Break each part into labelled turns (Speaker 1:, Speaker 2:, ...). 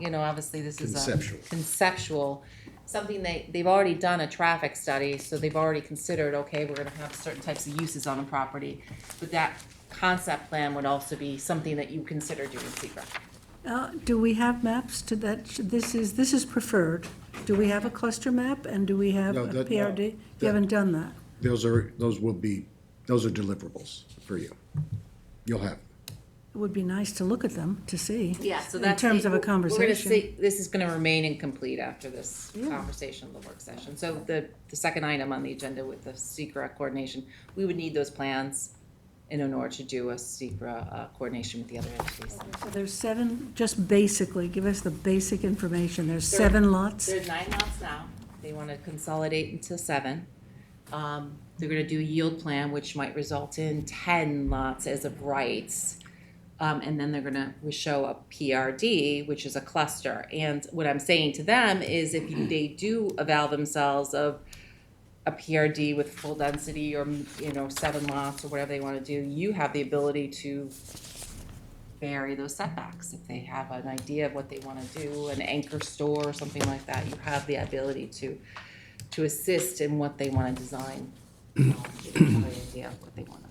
Speaker 1: you know, obviously this is a.
Speaker 2: Conceptual.
Speaker 1: Conceptual, something they, they've already done a traffic study, so they've already considered, okay, we're gonna have certain types of uses on a property. But that concept plan would also be something that you consider doing secret.
Speaker 3: Uh, Do we have maps to that? This is, this is preferred. Do we have a cluster map and do we have
Speaker 2: No,
Speaker 3: a
Speaker 2: that-
Speaker 3: PRD?
Speaker 2: that-
Speaker 3: You haven't done that.
Speaker 2: Those are, those will be, those are deliverables for you. You'll have.
Speaker 3: It would be nice to look at them, to see.
Speaker 1: Yeah, so
Speaker 3: In
Speaker 1: that's.
Speaker 3: terms
Speaker 1: the-
Speaker 3: of a
Speaker 1: we're gonna
Speaker 3: conversation.
Speaker 1: see- This is gonna remain incomplete after this conversation, the work session. So the, the second item on the agenda with the secret coordination, we would need those plans in order to do a secret uh, coordination with the other entities.
Speaker 3: So There's seven, just basically, give us the basic information. There's seven lots.
Speaker 1: There's nine lots now. They want to consolidate into seven. Um, They're going to do a yield plan, which might result in ten lots as of rights. Um, And then they're going to, we show a PRD, which is a cluster. And what I'm saying to them is if they do avail themselves of a PRD with full density or, you know, seven lots or whatever they want to do, you have the ability to vary those setbacks. If they have an idea of what they want to do, an anchor store or something like that, you have the ability to, to assist in what they want to design. um, if they have an idea of what they want to-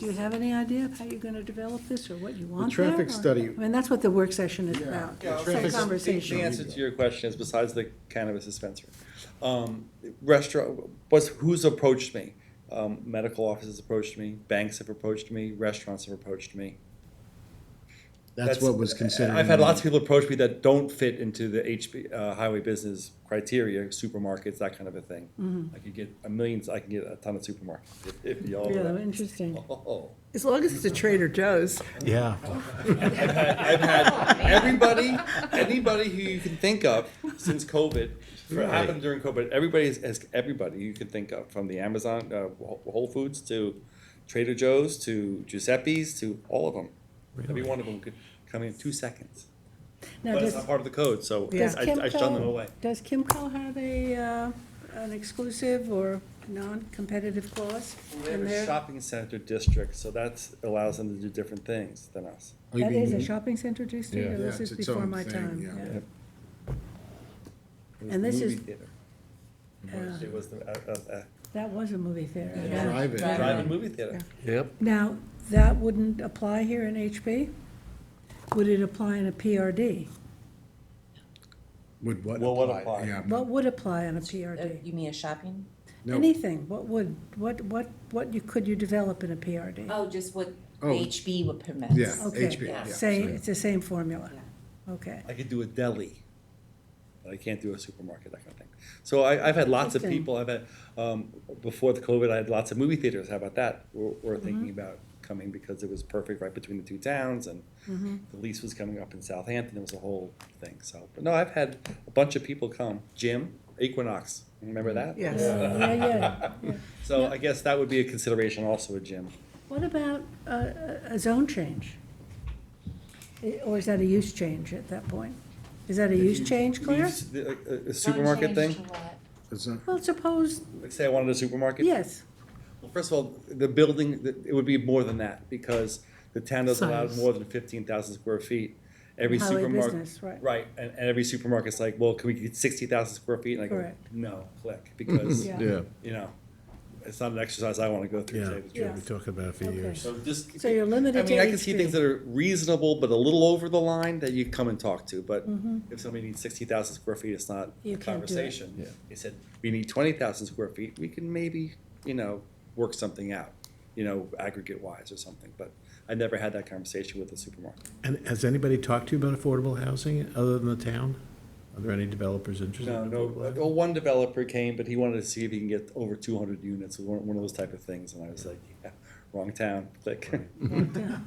Speaker 3: Do you have any idea of how you're going to develop this or what you want there?
Speaker 2: traffic
Speaker 3: or-
Speaker 2: study-
Speaker 3: I mean, that's what the work session is about.
Speaker 2: Yeah,
Speaker 3: It's a
Speaker 2: traffic-
Speaker 3: conversation.
Speaker 4: The answer to your question is besides the cannabis dispenser, um, restaurant, what's, who's approached me? Um, medical offices approached me, banks have approached me, restaurants have approached me.
Speaker 2: That's what was considered.
Speaker 4: I've had lots of people approach me that don't fit into the HB, uh, highway business criteria, supermarkets, that kind of a thing.
Speaker 3: Mm-hmm.
Speaker 4: I could get a million, I can get a ton of supermarkets if, if y'all.
Speaker 3: Yeah, interesting.
Speaker 4: Oh.
Speaker 5: As long as it's a Trader Joe's.
Speaker 6: Yeah.
Speaker 4: I've had everybody, anybody who you can think of since COVID, or happened during COVID. Everybody has, has everybody you can think of, from the Amazon, uh, Whole Whole Foods to Trader Joe's to Giuseppe's to all of them. Every one of them could come in two seconds.
Speaker 3: Now,
Speaker 4: But it's
Speaker 3: does-
Speaker 4: not part of the code, so I,
Speaker 3: Does
Speaker 4: I shun them
Speaker 3: Kimco-
Speaker 4: away.
Speaker 3: Does Kimco have a, uh, an exclusive or non-competitive clause
Speaker 4: They have
Speaker 3: in
Speaker 4: a
Speaker 3: there?
Speaker 4: shopping center district, so that allows them to do different things than us.
Speaker 3: That is a shopping center district,
Speaker 2: Yeah.
Speaker 3: or
Speaker 2: Yeah,
Speaker 3: this
Speaker 2: it's
Speaker 3: is
Speaker 2: its
Speaker 3: before
Speaker 2: own
Speaker 3: my
Speaker 2: thing,
Speaker 3: time?
Speaker 2: yeah.
Speaker 3: yeah.
Speaker 4: Yep.
Speaker 3: And this is,
Speaker 4: Movie theater.
Speaker 3: uh,
Speaker 4: It was the, uh, uh, uh,
Speaker 3: that was a movie theater. yeah.
Speaker 2: Drive it.
Speaker 4: drive-in movie theater.
Speaker 6: Yep.
Speaker 3: Now, that wouldn't apply here in HB? Would it apply in a PRD?
Speaker 2: Would what
Speaker 4: Well, what
Speaker 2: apply?
Speaker 4: apply?
Speaker 2: Yeah.
Speaker 3: What would apply in a
Speaker 1: Uh,
Speaker 3: PRD?
Speaker 1: You mean a shopping?
Speaker 2: No.
Speaker 3: Anything, what would, what, what, what you, could you develop in a PRD?
Speaker 1: Oh, just what
Speaker 2: Oh.
Speaker 1: HB would permit.
Speaker 2: Yeah.
Speaker 3: Okay,
Speaker 2: HB, yeah,
Speaker 3: Same,
Speaker 2: same.
Speaker 3: it's the same formula, okay.
Speaker 4: I could do a deli, but I can't do a supermarket, that kind of thing. So I, I've had lots of
Speaker 3: Interesting.
Speaker 4: people, I've had, um, before the COVID, I had lots of movie theaters, how about that? We're, we're
Speaker 3: Mm-hmm.
Speaker 4: thinking about coming because it was perfect right between the two towns and
Speaker 3: Mm-hmm.
Speaker 4: the lease was coming up in Southampton, it was a whole thing, so. But no, I've had a bunch of people come, Jim, Equinox, remember that?
Speaker 5: Yes.
Speaker 3: Yeah, yeah.
Speaker 4: So I guess that would be a consideration also, a gym.
Speaker 3: What about uh, a, a zone change? I- Or is that a use change at that point? Is that a use change, Claire?
Speaker 4: Leaves the- A a supermarket thing,
Speaker 2: It's not-
Speaker 3: Well, suppose,
Speaker 4: like say I wanted a supermarket.
Speaker 3: yes,
Speaker 4: Well, first of all, the building, the- it would be more than that, because the town doesn't allow
Speaker 5: Size.
Speaker 4: more than fifteen thousand square feet. Every
Speaker 3: Highway
Speaker 4: supermarket,
Speaker 3: business, right.
Speaker 4: right, and, and every supermarket's like, well, can we get sixty thousand square feet? And I go,
Speaker 3: Correct.
Speaker 4: no, click, because,
Speaker 3: Yeah.
Speaker 6: Yeah.
Speaker 4: you know, it's not an exercise I wanna go through, to
Speaker 6: Yeah.
Speaker 4: say the
Speaker 3: Yeah.
Speaker 4: truth.
Speaker 6: We talked about it for
Speaker 3: Okay.
Speaker 6: years.
Speaker 4: So just.
Speaker 3: So you're limited
Speaker 4: I mean,
Speaker 3: to
Speaker 4: I can see
Speaker 3: HP.
Speaker 4: things that are reasonable, but a little over the line that you come and talk to, but if somebody needs sixty thousand square feet, it's not
Speaker 3: Mm-hmm. You
Speaker 4: a
Speaker 3: can't do it.
Speaker 4: conversation.
Speaker 6: Yeah.
Speaker 4: They said, we need twenty thousand square feet, we can maybe, you know, work something out, you know, aggregate wise or something, but I never had that conversation with the supermarket.
Speaker 6: And has anybody talked to you about affordable housing other than the town? Are there any developers interested
Speaker 4: No,
Speaker 6: in affordable
Speaker 4: no,
Speaker 6: housing?
Speaker 4: well, one developer came, but he wanted to see if he can get over two hundred units, one, one of those type of things, and I was like, yeah, wrong town, click.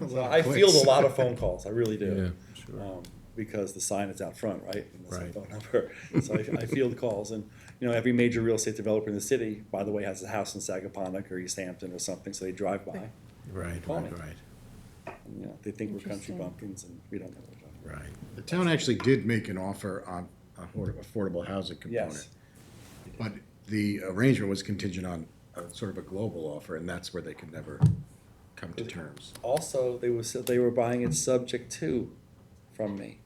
Speaker 4: So I field a lot of phone calls, I really do.
Speaker 6: Yeah, sure.
Speaker 4: Um, Because the sign is out front, right? And that's my
Speaker 6: Right.
Speaker 4: phone number. So I, I field calls and, you know, every major real estate developer in the city, by the way, has a house in Sagaponic or East Hampton or something, so they drive by.
Speaker 6: Right,
Speaker 4: Well,
Speaker 6: right, right,
Speaker 4: You know, they think we're country
Speaker 3: Interesting.
Speaker 4: bumpkins and we don't know what we're talking about.
Speaker 6: right.
Speaker 2: The town actually did make an offer on a hor- affordable housing component.
Speaker 4: Yes.
Speaker 2: But the arrangement was contingent on a sort of a global offer, and that's where they could never come to terms.
Speaker 4: Also, they was, they were buying it subject to from me.